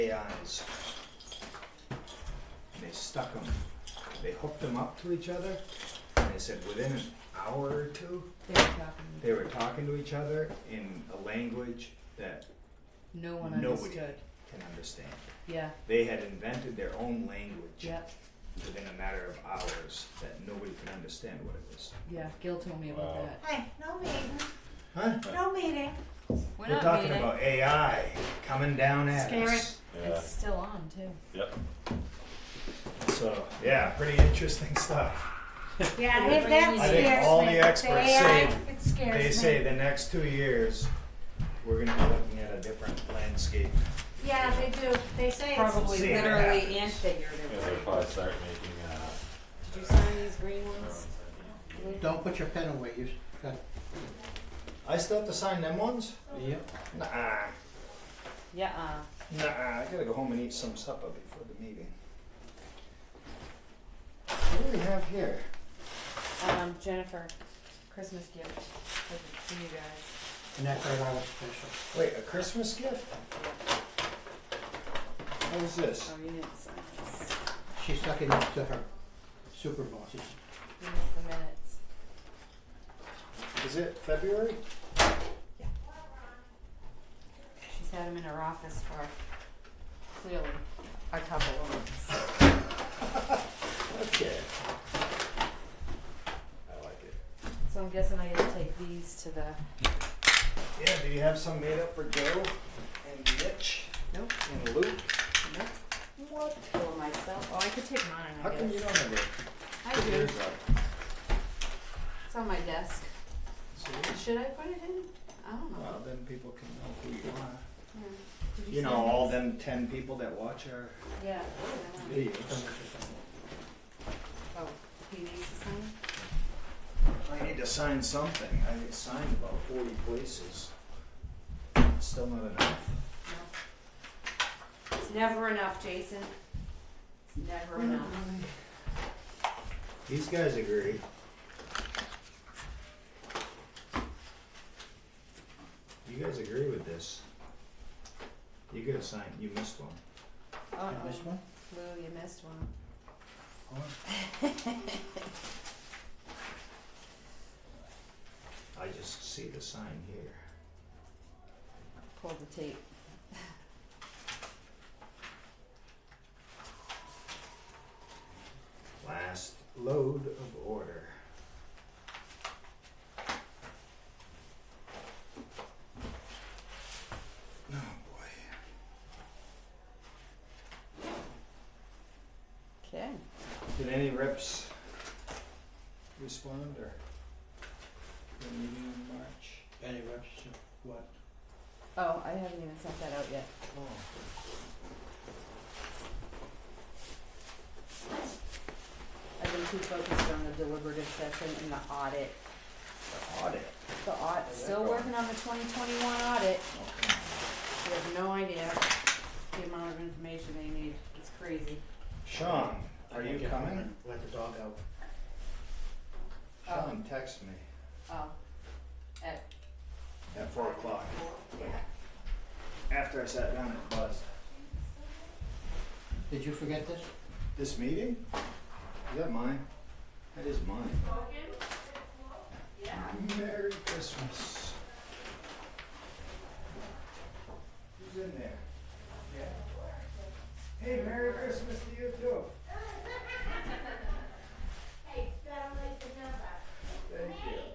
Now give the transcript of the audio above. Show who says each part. Speaker 1: AIs. They stuck them, they hooked them up to each other, and they said within an hour or two,
Speaker 2: They were talking.
Speaker 1: they were talking to each other in a language that
Speaker 2: No one
Speaker 1: Nobody.
Speaker 2: understood.
Speaker 1: can understand.
Speaker 2: Yeah,
Speaker 1: They had invented their own language
Speaker 2: yeah,
Speaker 1: within a matter of hours that nobody could understand what it was.
Speaker 2: yeah. Gil told me about
Speaker 3: Wow.
Speaker 2: that.
Speaker 4: Hey, no meeting,
Speaker 1: Huh?
Speaker 4: no meeting.
Speaker 2: We're,
Speaker 1: We're
Speaker 2: not
Speaker 1: talking
Speaker 2: meeting.
Speaker 1: about AI coming down at
Speaker 4: Scary.
Speaker 1: us.
Speaker 3: Yeah.
Speaker 2: It's still on too.
Speaker 3: Yep.
Speaker 1: So yeah, pretty interesting stuff.
Speaker 4: Yeah, that that
Speaker 1: I think
Speaker 4: scares
Speaker 1: all
Speaker 4: me.
Speaker 1: the experts
Speaker 4: AI,
Speaker 1: say
Speaker 4: It scares me.
Speaker 1: They say the next two years, we're gonna be looking at a different landscape.
Speaker 4: Yeah, they do, they say it's.
Speaker 5: Probably
Speaker 1: See what happens.
Speaker 5: literally and
Speaker 3: Yeah, they'll
Speaker 5: figuratively.
Speaker 3: probably start making uh,
Speaker 5: Did you sign these green ones?
Speaker 6: Don't put your pen away, you got,
Speaker 1: I still have to sign them ones?
Speaker 6: yep.
Speaker 1: Nah,
Speaker 5: Yeah, uh,
Speaker 1: nah, I gotta go home and eat some supper before the meeting. What do we have here?
Speaker 5: um, Jennifer, Christmas gift for the- for you guys.
Speaker 6: And that's our wallet special.
Speaker 1: Wait, a Christmas gift? What is this?
Speaker 5: Oh, you didn't sign this.
Speaker 6: She's sucking up to her super bosses.
Speaker 5: You missed the minutes.
Speaker 1: Is it February?
Speaker 5: She's had them in her office for clearly a couple of months.
Speaker 1: Okay. I like it.
Speaker 5: So I'm guessing I gotta take these to the,
Speaker 1: Yeah, do you have some made up for Joe and Mitch
Speaker 5: nope,
Speaker 1: and Luke?
Speaker 5: nope,
Speaker 1: What?
Speaker 5: for myself. Oh, I could take mine,
Speaker 1: How
Speaker 5: I
Speaker 1: come you
Speaker 5: guess.
Speaker 1: don't have it?
Speaker 5: I do.
Speaker 1: Yours are-
Speaker 5: It's on my desk.
Speaker 1: See?
Speaker 5: Should I put it in? I don't know.
Speaker 1: Well, then people can know who you are.
Speaker 5: Yeah. Did
Speaker 1: You
Speaker 5: sign
Speaker 1: know, all
Speaker 5: these?
Speaker 1: them ten people that watch our
Speaker 5: Yeah. oh, yeah.
Speaker 1: videos.
Speaker 5: Oh, he needs to sign?
Speaker 1: I need to sign something. I need to sign about forty places. It's Still not enough.
Speaker 5: No. It's never enough, Jason. It's never
Speaker 1: Hmm.
Speaker 5: enough.
Speaker 1: These guys agree. You guys agree with this? You gotta sign, you missed one.
Speaker 5: Oh,
Speaker 6: And this one?
Speaker 5: Lou, you missed one.
Speaker 1: I just see the sign here.
Speaker 5: Pull the tape.
Speaker 1: Last load of order. Oh boy.
Speaker 5: Okay.
Speaker 1: Did any reps respond or? The meeting in March?
Speaker 6: Any reps, what?
Speaker 5: Oh, I haven't even sent that out yet.
Speaker 1: Oh.
Speaker 5: I've been too focused on the deliberative session and the audit.
Speaker 1: The audit.
Speaker 5: The audit, still working on the twenty twenty-one audit.
Speaker 1: Okay.
Speaker 5: You have no idea the amount of information they need. It's crazy.
Speaker 1: Sean, are you coming?
Speaker 6: Let the dog out.
Speaker 1: Sean, text me
Speaker 5: Oh. At,
Speaker 1: at four o'clock. After I sat down and buzzed.
Speaker 6: Did you forget this?
Speaker 1: This meeting? Is that mine? That is mine. Merry Christmas. Who's in there? Yeah. Hey, Merry Christmas to you too.